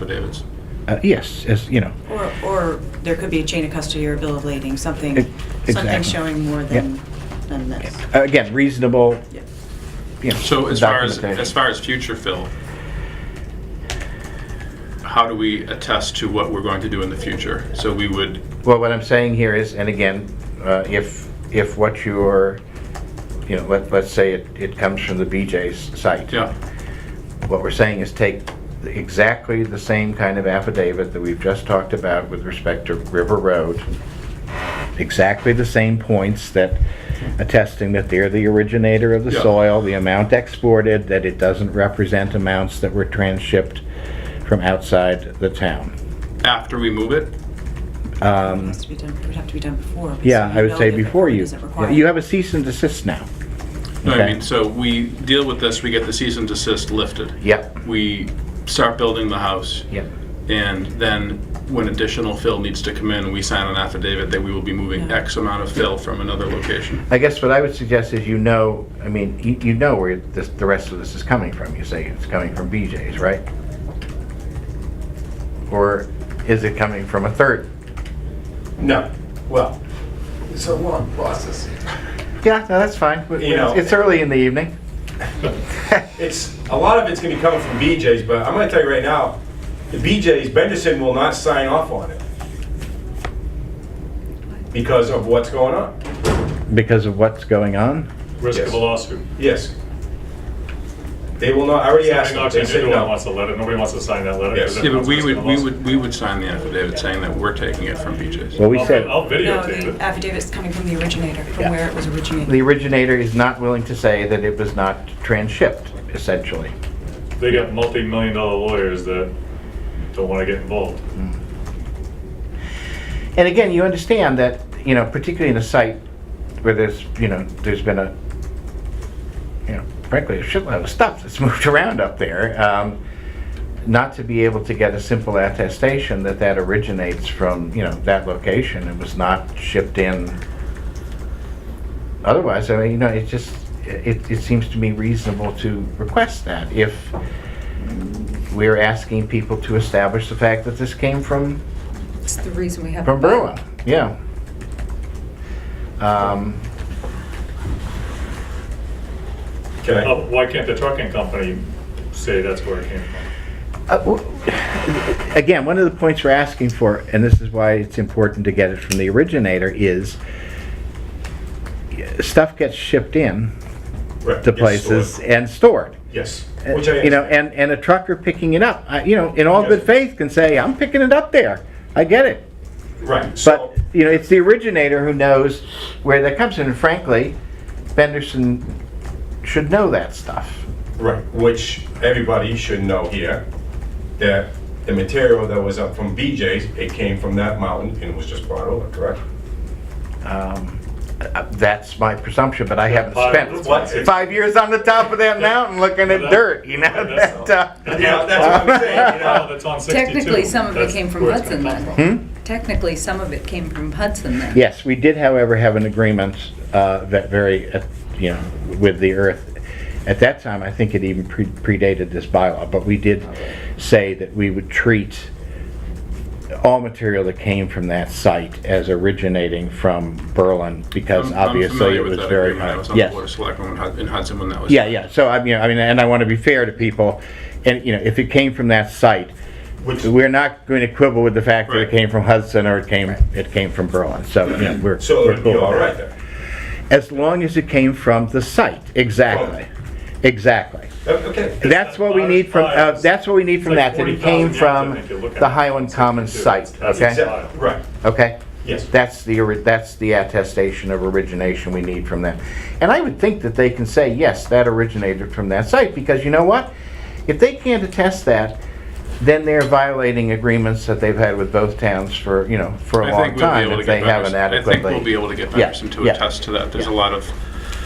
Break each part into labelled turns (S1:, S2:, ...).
S1: affidavits.
S2: Uh, Yes, as, you know,
S3: Or, or there could be a chain of custody or a bill of lading, something,
S2: Ex-
S3: something
S2: E- exactly.
S3: showing more than, than this.
S2: uh, again, reasonable,
S3: Yeah.
S2: you know.
S1: So as far as,
S2: documentation.
S1: as far as future fill, how do we attest to what we're going to do in the future? So we would,
S2: Well, what I'm saying here is, and again, uh, if, if what you're, you know, let, let's say it, it comes from the BJ's site.
S1: yeah,
S2: What we're saying is take exactly the same kind of affidavit that we've just talked about with respect to River Road. Exactly the same points that attesting that they're the originator of the
S1: Yeah.
S2: soil, the amount exported, that it doesn't represent amounts that were transshipped from outside the town.
S1: after we move it?
S3: It has to be done, it would have to be done before. because
S2: Um, Yeah,
S3: you
S2: I would
S3: know
S2: say
S3: that the
S2: before
S3: permit
S2: you.
S3: Isn't
S2: yeah, You
S3: required.
S2: have a cease and desist now.
S1: No, I
S2: Okay.
S1: mean, so we deal with this, we get the cease and desist lifted.
S2: Yep.
S1: We start building the house.
S2: Yep.
S1: And then when additional fill needs to come in, we sign an affidavit that we will be moving
S3: Yeah.
S1: X amount of fill from another location.
S2: I guess what I would suggest is you know, I mean, you, you know where this, the rest of this is coming from. You say it's coming from BJ's, right? Or is it coming from a third?
S4: No, well, it's a long process.
S2: Yeah, no, that's fine. But
S4: You know-
S2: It's early in the evening.
S4: It's, a lot of it's gonna be coming from BJ's, but I'm gonna tell you right now, the BJ's, Benderson will not sign off on it because of what's going on.
S2: Because of what's going on?
S5: Risk of
S4: Yes.
S5: a lawsuit.
S4: Yes. They will not, I already asked them,
S5: Nobody
S4: they said no.
S5: wants a letter, nobody wants to sign that letter.
S4: Yes.
S5: 'cause
S1: Yeah,
S5: everyone
S1: but we
S5: wants
S1: would,
S5: to
S1: we
S5: sign a
S1: would, we would sign the affidavit saying that we're taking it from BJ's.
S2: Well, we
S5: lawsuit.
S2: said
S5: I'll I'll
S3: No, the
S5: videotape it.
S3: affidavit's coming from the originator,
S2: Yeah.
S3: from where it was
S2: the
S3: originated.
S2: originator is not willing to say that it was not transshipped, essentially.
S5: They got multi-million dollar lawyers that don't want to get involved.
S2: And again, you understand that, you know, particularly in a site where there's, you know, there's been a, you know, frankly, a shitload of stuff that's moved around up there, um, not to be able to get a simple attestation that that originates from, you know, that location and was not shipped in. Otherwise, I mean, you know, it just, it, it seems to me reasonable to request that if we're asking people to establish the fact that this came from
S6: It's the reason we have.
S2: from Berlin, yeah. Um,
S4: Can I?
S5: Uh, Why can't the trucking company say that's where it came from?
S2: uh, w- Again, one of the points we're asking for, and this is why it's important to get it from the originator, is stuff gets shipped in
S4: Right,
S2: to
S4: yes,
S2: places
S4: sure.
S2: and stored.
S4: Yes,
S2: Uh,
S4: which I.
S2: You know, and, and a trucker picking it up, I- you know, in all good
S4: Yes.
S2: faith can say, I'm picking it up there. I get it.
S4: Right, so,
S2: But, you know, it's the originator who knows where that comes in. And frankly, Benderson should know that stuff.
S4: right, which everybody should know here, that the material that was up from BJ's, it came from that mountain and was just brought over, correct?
S2: Um, uh, That's my presumption, but I haven't
S5: Five- what?
S2: spent five years on the top of that mountain looking at
S5: Well, that-
S2: dirt, you know?
S5: well, that's-
S2: that, uh,
S4: Yeah, that's what I'm saying, you know?
S5: Oh, that's on 62.
S6: Technically, some of it
S5: That's
S6: came from
S5: where it's
S6: Hudson
S5: gonna come
S6: then.
S5: from.
S2: Hmm?
S6: Technically, some of it came from Hudson then.
S2: Yes, we did, however, have an agreement uh, that very, uh, you know, with the earth. At that time, I think it even pre- predated this bylaw, but we did say that we would treat all material that came from that site as originating from Berlin, because
S1: I'm- I'm
S2: obviously
S1: familiar
S2: it
S1: with
S2: was
S1: that
S2: very.
S1: agreement. I was on the
S2: Yes.
S1: board of selectmen in Hud- in Hudson when that was.
S2: Yeah, yeah, so I mean, I mean, and I want to be fair to people, and, you know, if it came from that site,
S4: Which-
S2: we're not going to quibble with the fact that it
S1: Right.
S2: came from Hudson or it came, it came from Berlin, so, you know, we're,
S4: So
S2: we're
S4: it'd be
S2: cool
S4: all
S2: with
S4: right
S2: that.
S4: then.
S2: As long as it came from the site, exactly, exactly.
S4: Okay,
S2: That's what we need from, uh, that's what we need from
S5: It's like
S2: that, that it came
S5: 40,000 yards, I
S2: from
S5: think you're looking
S2: the
S5: at.
S2: Highland Commons site,
S5: That's
S2: okay?
S5: exact-
S4: exactly, right,
S2: Okay?
S4: yes.
S2: That's the, ori- that's the attestation of origination we need from them. And I would think that they can say, yes, that originated from that site, because you know what? If they can't attest that, then they're violating agreements that they've had with both towns for, you know, for a
S1: I
S2: long
S1: think we'll be
S2: time,
S1: able to
S2: if
S1: get
S2: they haven't
S1: Benderson- I think we'll be
S2: adequately.
S1: able to get
S2: Yeah,
S1: Benderson to
S2: yeah.
S1: attest to that. There's a lot of,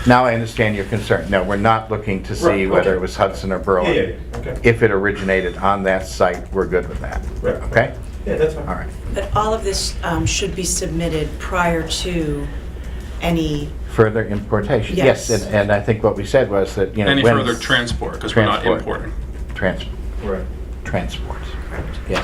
S2: Now I understand your concern. No, we're not looking to see
S4: Right,
S2: whether
S4: okay.
S2: it was Hudson or
S4: Yeah, yeah,
S2: Berlin.
S4: yeah, okay.
S2: If it originated on that site, we're good with that.
S4: Right.
S2: Okay?
S4: Yeah, that's fine.
S2: All right.
S3: But all of this um, should be submitted prior to any,
S2: Further importation. Yes,
S3: Yes.
S2: and, and I think what we said was that, you know.
S1: any
S2: when-
S1: further transport, because we're not
S2: Transport.
S1: importing.
S2: Trans,
S5: Right.
S2: transport. correct.